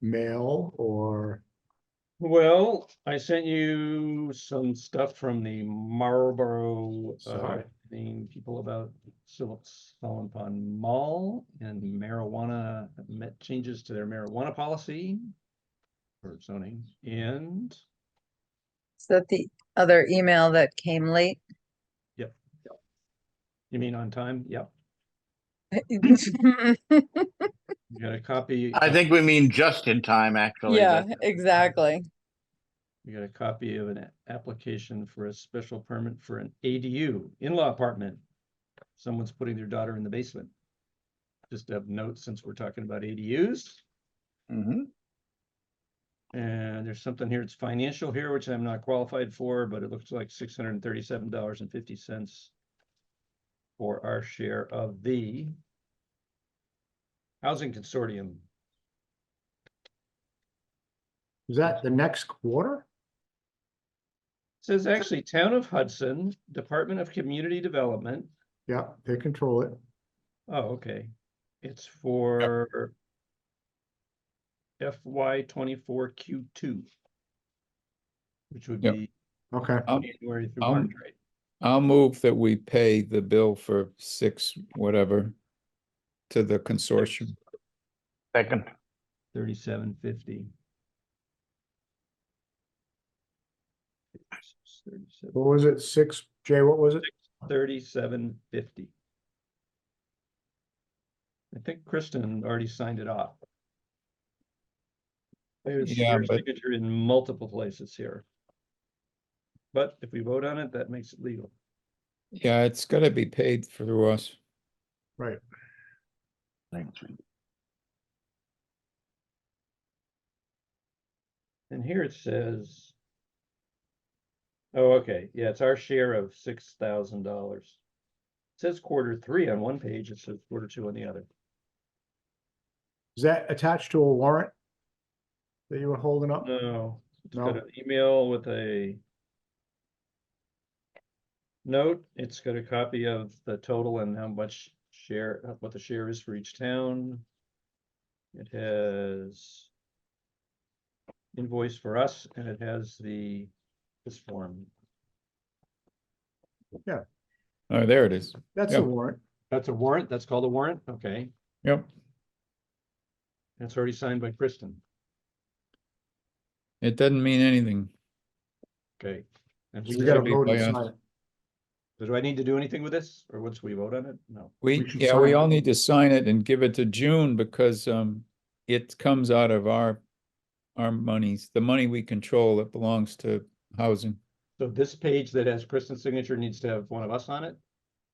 mail or, Well, I sent you some stuff from the Marlborough, uh, Sorry. thing, people about Sil- Solon Pond Mall and marijuana, met changes to their marijuana policy. Or zoning, and Is that the other email that came late? you mean on time? Yep, you got a copy, I think we mean just in time, actually. Yeah, That's- exactly. you got a copy of an a- application for a special permit for an ADU in-law apartment. Someone's putting their daughter in the basement. Just of note, since we're talking about ADUs. Mhm. And there's something here, it's financial here, which I'm not qualified for, but it looks like six hundred and thirty-seven dollars and fifty cents. For our share of the. Housing Consortium, is that the next quarter? says actually Town of Hudson, Department of Community Development, Yeah, they control it. oh, okay. It's for. FY twenty-four Q two. Which would Yep. um, be Okay, I'll- January through I'll- March, right? I'll move that we pay the bill for six, whatever, to the consortium. Second, Thirty-seven fifty. what was it? Six, Jay, what was it? Thirty-seven fifty. I think Kristen already signed it off. There's Yeah, your but- signature in multiple places here. But if we vote on it, that makes it legal. Yeah, it's gotta be paid through us. Right. And here it says. Oh, okay, yeah, it's our share of six thousand dollars. Says quarter three on one page, it says quarter two on the other. Is that attached to a warrant? That you were holding Uh, up? No, it's No. got an email with a. Note, it's got a copy of the total and how much share, uh, what the share is for each town. It has. Invoice for us and it has the, this form. Oh, there it is. That's a Yeah. warrant. That's a warrant, that's called a warrant, okay, Yep, and it's already signed by Kristen, it doesn't mean anything. okay. And We who- gotta gotta be vote and by us. sign it. do I need to do anything with this, or once we vote on it? No, We, We should yeah, we sign it. all need to sign it and give it to June because, um, it comes out of our, our monies, the money we control that belongs to housing, so this page that has Kristen's signature needs to have one of us on it?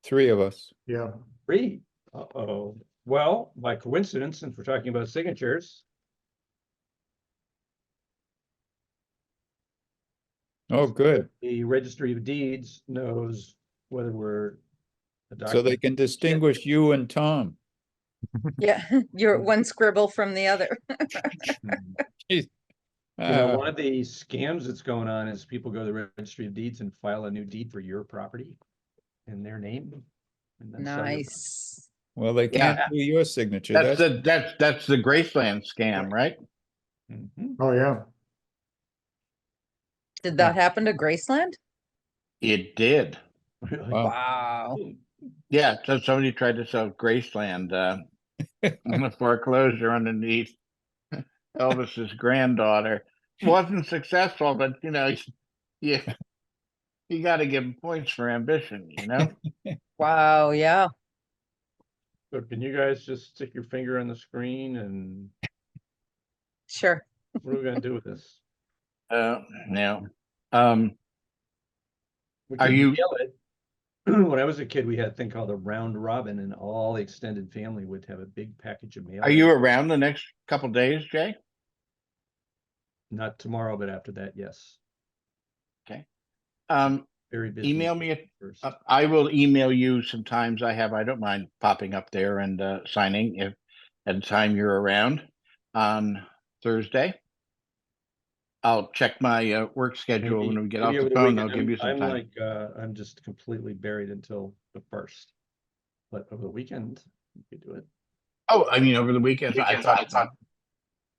three of us. Yeah, Three. Uh-oh. Well, by coincidence, since we're talking about signatures, Oh, good. the registry of deeds knows whether we're. a So they document- can distinguish you and Tom. Yeah, you're one scribble from the other. You know, Uh, one of the scams that's going on is people go to the registry of deeds and file a new deed for your property in their name. and then sell your property. Nice. Well, they Yeah. can't do your signature. that's That's, the, that's, that's the Graceland scam, right? Mhm. oh, yeah. Did that happen to Graceland? It did. Really? Wow. Wow. Yeah, so somebody tried to sell Graceland, uh, on a foreclosure underneath Elvis's granddaughter. Wasn't successful, but you know, yeah. You gotta give him points for ambition, you know? Wow, yeah. So can you guys just stick your finger on the screen and Sure. what are we gonna do with this? Uh, no. Um, We Are could you- yell it. When I was a kid, we had a thing called a round robin and all the extended family would have a big package of mail. are you around the next couple days, Jay? Not tomorrow, but after that, yes. Um, Very busy. email me if first. Uh, I will email you sometimes I have, I don't mind popping up there and uh, signing if at the time you're around on Thursday. I'll check my uh, work schedule Maybe- when we get maybe off over the the phone. weekend. I'll give I'm- you some I'm time. like, uh, I'm just completely buried until the first. But over the weekend, we could do it. Oh, I mean, over the weekend, I Weekends, I thought, thought-